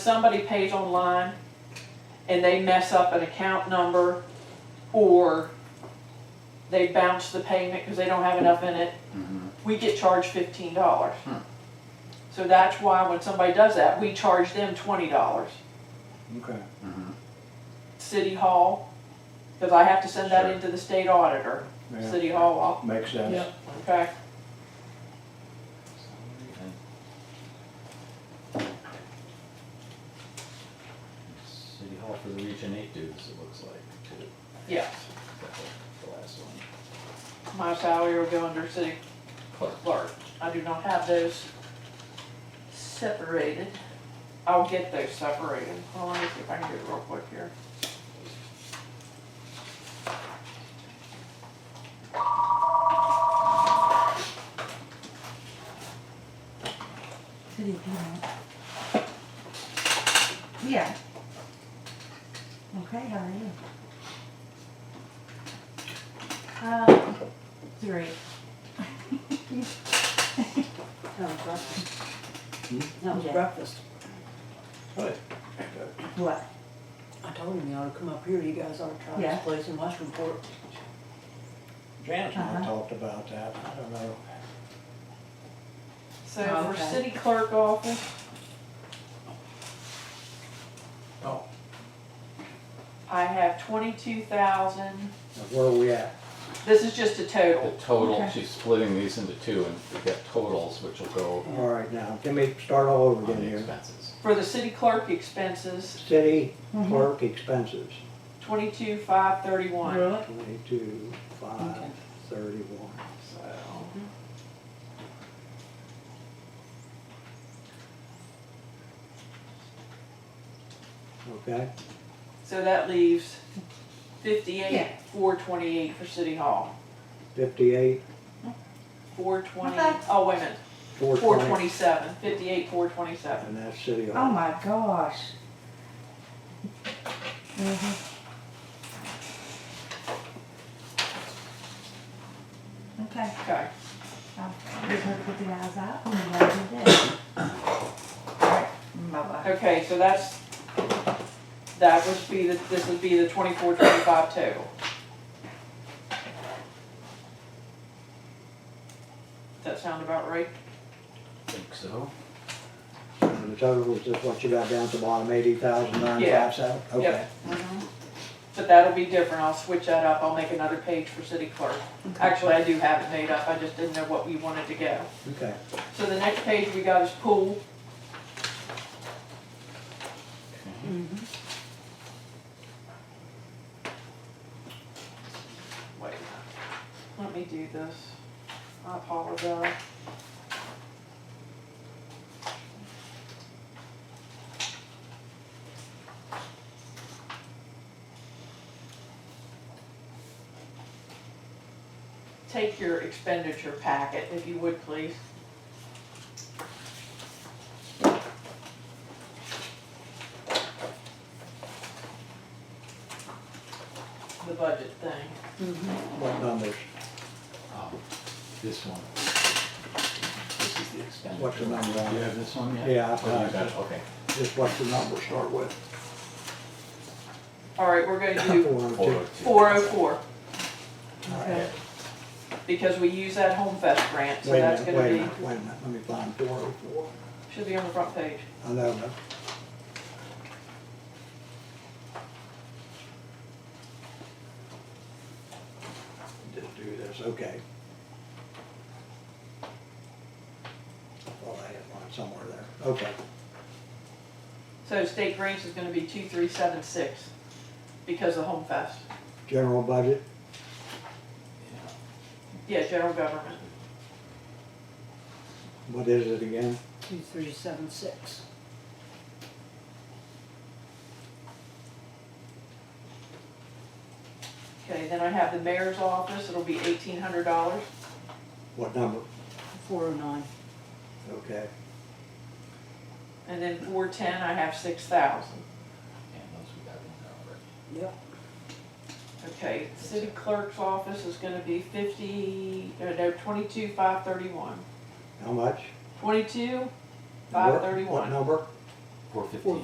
somebody pays online and they mess up an account number or they bounce the payment because they don't have enough in it, we get charged fifteen dollars. Hmm. So that's why when somebody does that, we charge them twenty dollars. Okay. City Hall, because I have to send that Sure. into the state auditor, yeah, City Hall, Makes sense. Yep. okay? City Hall for the Region Eight dudes, it looks like, too. Yes, That's the- The last one. my salary will go under city Clerk. clerk. I do not have those separated. I'll get those separated. Hold on, let me see if I can do it real quick here. City Piedmont. Yeah. Okay, how are you? Um, great. That was breakfast. That was Yeah. breakfast. What? I told him you ought to come up here, you guys ought to try Yeah. this place in Westernport. Janice and I Uh-huh. talked about that, I don't know. So Oh, for okay. city clerk office, Oh. I have twenty-two thousand. Now, Where are we at? This is just a The total. total, Okay. she's splitting these into two, and we got totals, which will go All right, now, let me start all on over again the here. expenses. For the city clerk expenses, City Mhm. Mm-hmm. clerk expenses, twenty-two, five, thirty-one. twenty-two, five, thirty-one. So Okay, so that leaves fifty-eight, Yeah. four twenty-eight for city hall. fifty-eight, Four twenty, Okay. oh, wait a minute, four four twenty, twenty-seven, fifty-eight, four twenty-seven. and that's city Oh hall. my gosh. Mhm. Okay, Okay. I'll just have to put the eyes out and we'll do that. Alright, bye-bye. Okay, so that's, that would be, the this would be the twenty-four, twenty-five total. Does that sound about right? Think so? And the total is just what you got down to bottom, eighty thousand nine five seven? Okay. Yeah. But that'll be different, I'll switch that up, I'll make another page for city clerk. Actually, I do have it made up, I just didn't know what we wanted to go. Okay, So the next page we got is pool, Mm-hmm. wait, let me do this, I apologize. Take your expenditure packet, if you would please. The budget thing. what numbers, Um, This one. This is the expenditure. What's the number on Do you it? have this one yet? Yeah, I've Oh, you got got it. it, okay. just what's the number start with? All right, we're gonna Four do oh two. Four oh two. four oh four, Okay. because we use that Home Fest grant, so Wait a that's minute, gonna wait a be, minute, wait a minute, let me find four oh four. should be on the front page. I know, but Just do this, okay. Well, I had one somewhere there, okay. So state grants is gonna be two three seven six, because of Home Fest. General budget, Yeah. Yeah, general government, what is it again? Two, three, seven, six. okay, then I have the mayor's office, it'll be eighteen hundred dollars. What number? Four oh nine. Okay, And then four ten, I have six thousand. And those we got in there already. Yep. Okay, city clerk's office is gonna be fifty, uh, no, twenty-two five thirty-one. how much? Twenty-two, What- five What thirty-one. number? Four fifteen. Four